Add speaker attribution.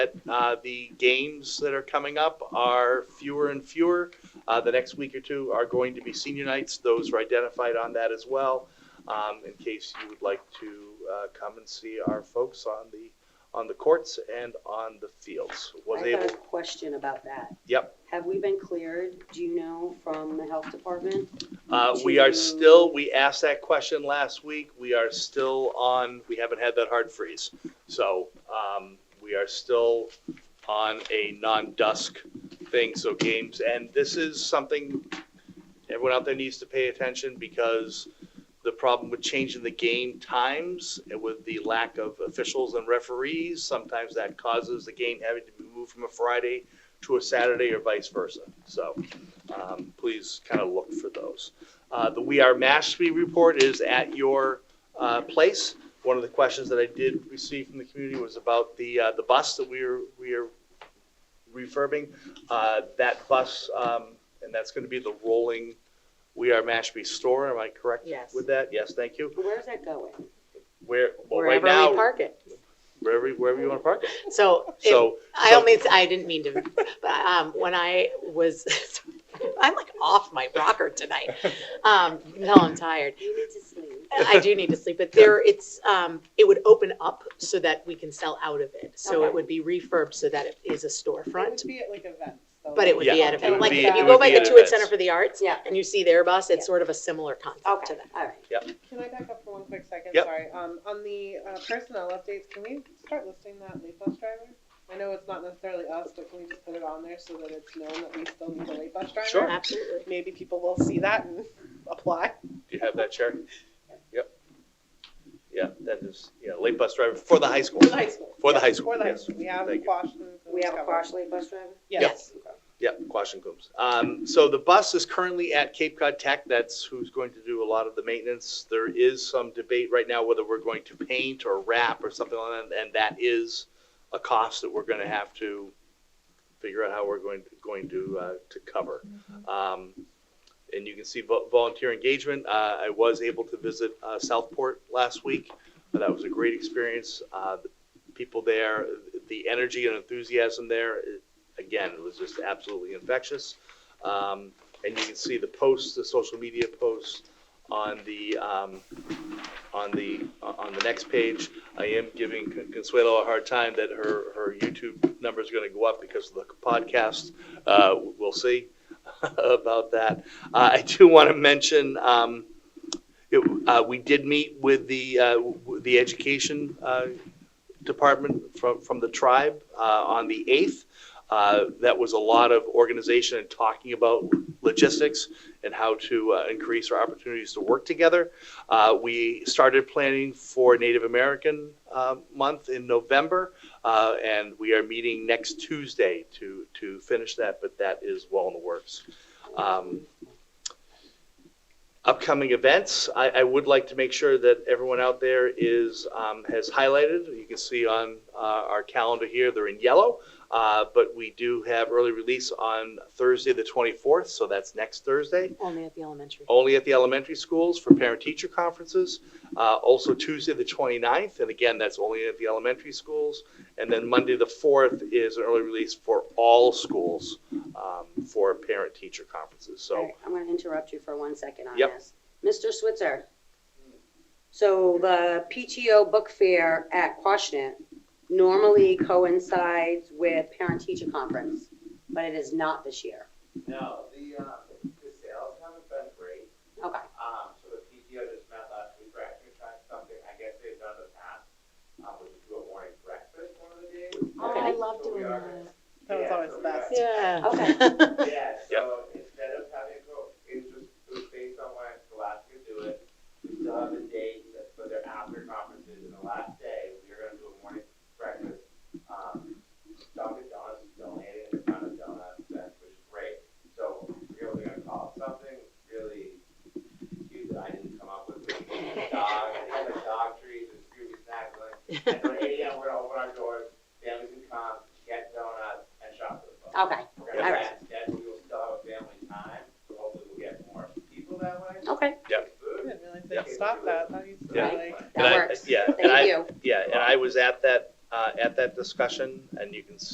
Speaker 1: that uh, the games that are coming up are fewer and fewer. Uh, The next week or two are going to be senior nights. Those are identified on that as well, um, in case you would like to uh, come and see our folks on the, on the courts and on the fields. Was
Speaker 2: I
Speaker 1: able,
Speaker 2: got a question about that.
Speaker 1: yep.
Speaker 2: Have we been cleared, do you know, from the health department?
Speaker 1: Uh, We are
Speaker 2: to-
Speaker 1: still, we asked that question last week. We are still on, we haven't had that hard freeze. So um, we are still on a non-dusk thing, so games. And this is something everyone out there needs to pay attention because the problem with changing the game times and with the lack of officials and referees, sometimes that causes the game having to be moved from a Friday to a Saturday or vice versa. So um, please kind of look for those. Uh, The We Are Mashpee report is at your uh, place. One of the questions that I did receive from the community was about the, uh, the bus that we are, we are refurbing. Uh, That bus, um, and that's going to be the rolling We Are Mashpee store, am I correct?
Speaker 3: Yes.
Speaker 1: With that? Yes, thank you.
Speaker 2: Where's that going?
Speaker 1: Where, well, right
Speaker 3: wherever we
Speaker 1: now,
Speaker 3: park it.
Speaker 1: wherever, wherever you want to park it.
Speaker 3: So, if-
Speaker 1: So,
Speaker 3: I
Speaker 1: so-
Speaker 3: only, I didn't mean to, but um, when I was, I'm like off my rocker tonight. Um, you can tell I'm tired.
Speaker 2: You need to sleep.
Speaker 3: I do need to sleep, but there, it's, um, it would open up so that we can sell out of it. So
Speaker 2: Okay.
Speaker 3: it would be refurbed so that it is a storefront,
Speaker 4: It would be at like events. though.
Speaker 3: but it would be
Speaker 1: Yeah,
Speaker 3: at
Speaker 1: it
Speaker 3: a,
Speaker 1: would
Speaker 3: like,
Speaker 1: be- it
Speaker 3: if you
Speaker 1: would
Speaker 3: go by
Speaker 1: be
Speaker 3: the
Speaker 1: at
Speaker 3: Tewitt
Speaker 1: events.
Speaker 3: Center for the Arts
Speaker 2: Yeah.
Speaker 3: and you see their bus,
Speaker 2: Yeah.
Speaker 3: it's sort of a similar concept to
Speaker 2: Okay,
Speaker 3: that.
Speaker 2: all right.
Speaker 4: Can I back up for one quick second?
Speaker 1: Yep.
Speaker 4: Sorry. Um, on the uh, personnel updates, can we start listing that late bus driver? I know it's not necessarily us, but can we just put it on there so that it's known that we still need a late bus driver?
Speaker 1: Sure.
Speaker 3: Absolutely.
Speaker 4: Maybe people will see that and apply.
Speaker 1: Do you have that, Chair? Yep. Yeah, that is, yeah, late bus driver for the high school.
Speaker 4: For the high school.
Speaker 1: For the
Speaker 4: Yeah,
Speaker 1: high school,
Speaker 4: For the high
Speaker 1: yes.
Speaker 4: school. We have
Speaker 1: Thank you.
Speaker 4: Quash.
Speaker 2: We have a Quash Lake bus driver?
Speaker 4: Yes.
Speaker 1: Yeah, Quash and Coombs. Um, so the bus is currently at Cape Cod Tech. That's who's going to do a lot of the maintenance. There is some debate right now whether we're going to paint or wrap or something like that, and that is a cost that we're gonna have to figure out how we're going, going to, uh, to cover. Um, and you can see vo- volunteer engagement. Uh, I was able to visit, uh, Southport last week. That was a great experience. Uh, the people there, the energy and enthusiasm there, i- again, it was just absolutely infectious. Um, and you can see the posts, the social media posts on the, um, on the, on the next page. I am giving Con- Consuelo a hard time that her, her YouTube number's gonna go up because of the podcast. Uh, we'll see about that. Uh, I do wanna mention, um, it, uh, we did meet with the, uh, w- the education, uh, department from, from the tribe, uh, on the eighth. Uh, that was a lot of organization and talking about logistics and how to uh, increase our opportunities to work together. Uh, we started planning for Native American uh, Month in November, uh, and we are meeting next Tuesday to to finish that. But that is well in the works. Um, upcoming events. I, I would like to make sure that everyone out there is um, has highlighted. You can see on uh, our calendar here; they're in yellow. Uh, but we do have early release on Thursday, the 24th, so that's next Thursday.
Speaker 3: Only at the elementary.
Speaker 1: Only at the elementary schools for parent-teacher conferences. Uh, also Tuesday, the 29th, and again, that's only at the elementary schools. And then Monday, the 4th, is an early release for all schools um, for parent-teacher conferences.
Speaker 2: All
Speaker 1: So
Speaker 2: right, I'm going to interrupt you for one second on
Speaker 1: Yep.
Speaker 2: this. Mr. Switzer, so the PTO book fair at Quashnet normally coincides with parent-teacher conference, but it is not this year.
Speaker 5: No, the, uh, the sales haven't been great.
Speaker 2: Okay,
Speaker 5: Um, so the PTO just met last week, we're actually trying something, I guess they've done in the past, uh, which is do a morning breakfast one of the days.
Speaker 2: Oh, I
Speaker 5: love doing that.
Speaker 4: That was
Speaker 5: Yeah,
Speaker 4: always the
Speaker 5: so we are-
Speaker 4: best.
Speaker 3: Yeah.
Speaker 2: Okay.
Speaker 5: Yeah, so instead of having, go- it was just, it was based on when Alaska do it, we still have the date, that- but they're after conferences, and the last day, we are gonna do a morning breakfast. Um, Dunkin' Donuts is donating a ton of donuts, that- which is great, so we're really gonna call it something really cute that I didn't come up with, with dog, they have a dog treat, and Scooby snacks, like, at like eight AM, we're gonna open our doors, families can come, get donuts, and shop for the folks.
Speaker 2: okay.
Speaker 5: We're gonna
Speaker 2: All
Speaker 5: have
Speaker 2: right.
Speaker 5: that schedule, we will still have
Speaker 2: Oh.
Speaker 1: that uh, discussion, and you can